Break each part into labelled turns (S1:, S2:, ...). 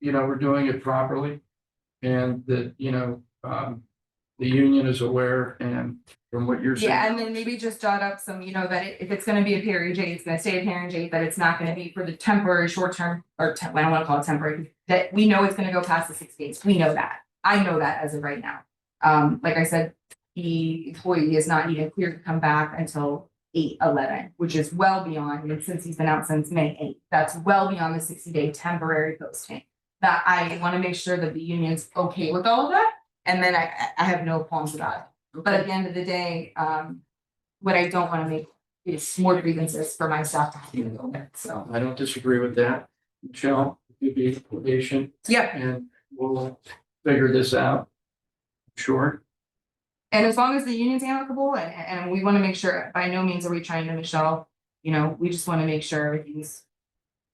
S1: you know, we're doing it properly. And that, you know, um, the union is aware and from what you're saying.
S2: Yeah, and then maybe just jot up some, you know, that it- if it's gonna be a period J, it's gonna stay a period J, that it's not gonna be for the temporary short term. Or tem- I don't wanna call it temporary, that we know it's gonna go past the six days, we know that, I know that as of right now. Um, like I said, the employee is not even cleared to come back until eight eleven, which is well beyond, and since he's been out since May eighth. That's well beyond the sixty day temporary posting, that I wanna make sure that the union's okay with all of that, and then I, I- I have no qualms about it. But at the end of the day, um, what I don't wanna make is more grievances for my staff to have to deal with, so.
S1: I don't disagree with that. Michelle, you be patient
S2: Yep,
S1: and we'll figure this out. Sure,
S2: and as long as the union's amicable and, and we wanna make sure, by no means are we trying to Michelle, you know, we just wanna make sure everything's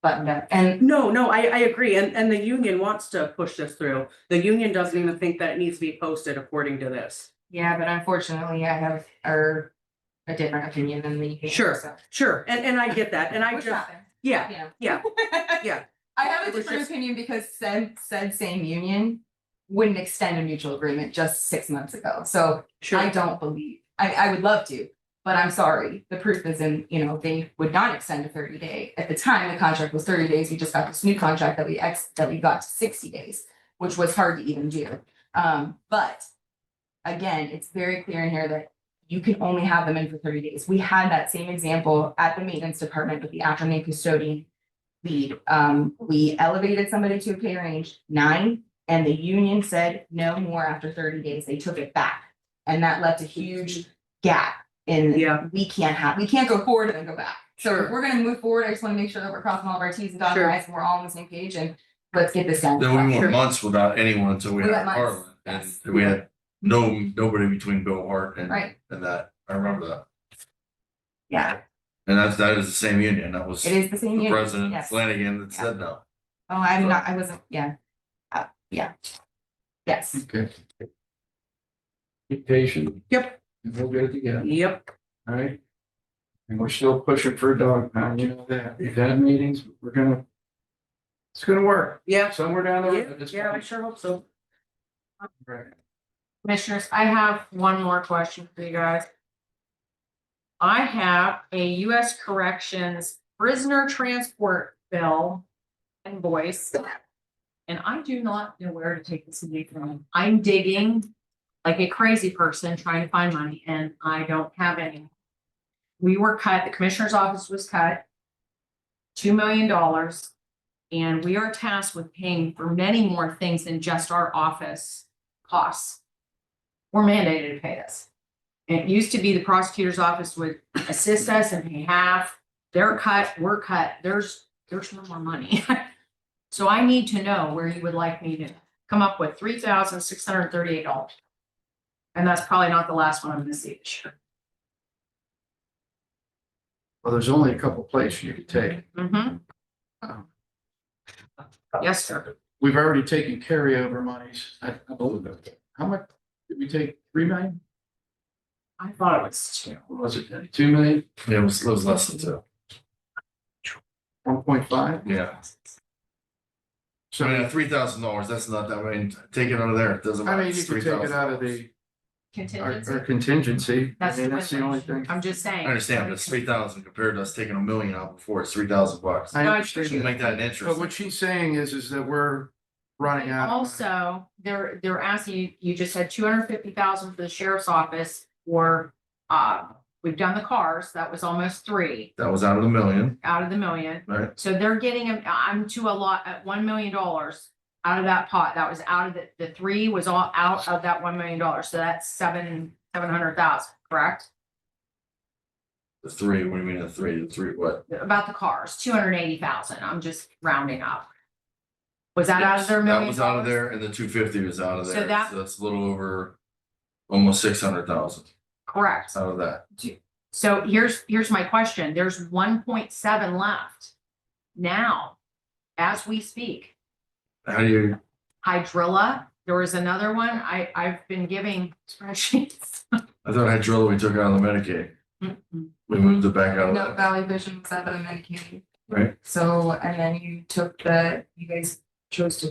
S2: buttoned up and
S3: No, no, I, I agree, and, and the union wants to push this through. The union doesn't even think that it needs to be posted according to this.
S2: yeah, but unfortunately I have our a different opinion than the union.
S3: Sure.
S2: so.
S3: Sure, and, and I get that, and I
S2: Which
S3: just,
S2: happens,
S3: yeah,
S2: yeah.
S3: yeah, yeah.
S2: I have
S3: It
S2: a
S3: was
S2: different
S3: just-
S2: opinion because said, said same union wouldn't extend a mutual agreement just six months ago, so. I
S3: sure,
S2: don't believe, I, I would love to, but I'm sorry, the proof is in, you know, they would not extend a thirty day. At the time, the contract was thirty days, we just got this new contract that we ex, that we got to sixty days, which was hard to even do. Um, but again, it's very clear in here that you can only have them in for thirty days. We had that same example at the maintenance department with the afternoon custodian lead. Um, we elevated somebody to a pay range nine, and the union said no more after thirty days. They took it back. And that left a huge gap in,
S3: yeah,
S2: we can't have, we can't go forward and then go back. So if
S3: Sure.
S2: we're gonna move forward, I just wanna make sure that we're crossing all of our Ts and dotting
S3: Sure.
S2: our Is, and we're all on the same page, and let's get this done.
S4: Then we
S3: Sure.
S4: went months without anyone until we
S2: We
S4: had
S2: went months,
S4: Harlan, and
S2: yes.
S4: we had no, nobody between Bill Hart and,
S2: Right.
S4: and that, I remember that.
S2: Yeah,
S4: And that's, that is the same union, that was
S2: it is the same
S4: the
S2: union.
S4: president
S2: Yes.
S4: Flanagan that said no.
S2: Oh, I'm not, I wasn't, yeah. Uh, yeah. Yes,
S1: okay. Be patient.
S3: Yep.
S1: And we'll get it together,
S3: yep,
S1: all right? And we're still pushing for a dog pound, you know that, we've had meetings, we're gonna. It's gonna work,
S3: yeah,
S1: somewhere down the
S3: yeah,
S1: road. it's
S3: yeah, I
S1: gonna-
S3: sure hope so.
S1: Right.
S5: Commissioners, I have one more question for you guys. I have a US Corrections prisoner transport bill invoice. And I do not know where to take this money from. I'm digging like a crazy person trying to find money and I don't have any. We were cut, the commissioner's office was cut. Two million dollars. And we are tasked with paying for many more things than just our office costs we're mandated to pay this. And It used to be the prosecutor's office would assist us and pay half, they're cut, we're cut, there's, there's no more money. So I need to know where you would like me to come up with three thousand six hundred and thirty-eight dollars. And that's probably not the last one I'm gonna see this year.
S1: Well, there's only a couple places you could take.
S5: Mhm. Oh. Yes, sir.
S1: We've already taken carryover monies, I I believe it. How much, did we take three million?
S5: I thought it was two.
S1: What was it, Danny? two million,
S4: It was, it was less than two,
S1: one point five?
S4: yeah. So
S1: So,
S4: I mean, three thousand dollars, that's not that, I mean, take it out of there, it doesn't
S1: I
S4: matter,
S1: mean, you
S4: it's
S1: could
S4: three
S1: take it
S4: thousand.
S1: out of the, our
S5: Contingency.
S1: our contingency, I
S5: That's
S1: mean,
S5: the
S1: that's the only thing.
S5: I'm just
S4: I
S5: saying.
S4: understand, but it's three thousand compared to us taking a million out before, it's three thousand bucks.
S1: I
S5: I
S4: You can
S1: understand that,
S4: make that an
S1: but
S4: interest,
S1: what she's saying is, is that we're running out. of money.
S5: Also, they're, they're asking, you you just had two hundred fifty thousand for the sheriff's office or, uh, we've done the cars, that was almost three
S4: that was out of the million,
S5: out of the million.
S4: right?
S5: So they're getting, a- I'm to a lot, at one million dollars out of that pot. That was out of the, the three was all out of that one million dollars. So that's seven, seven hundred thousand, correct?
S4: The three, what do you mean the three, the three what?
S5: About the cars, two hundred eighty thousand. I'm just rounding up. Was that out of their million?
S4: That was out of
S5: dollars?
S4: there and the two fifty was out of
S5: So
S4: there.
S5: that-
S4: So it's a little over almost six hundred thousand
S5: Correct.
S4: out of that.
S5: So here's, here's my question. There's one point seven left. Now, as we speak,
S4: How do you,
S5: hydrilla, there was another one. I, I've been giving spreadsheets.
S4: I thought hydrilla we took out of the Medicaid.
S5: Mm-mm.
S4: We moved it back out of
S2: no,
S4: that.
S2: Valley Vision was out of Medicaid.
S4: Right.
S2: So, and then you took the, you guys chose to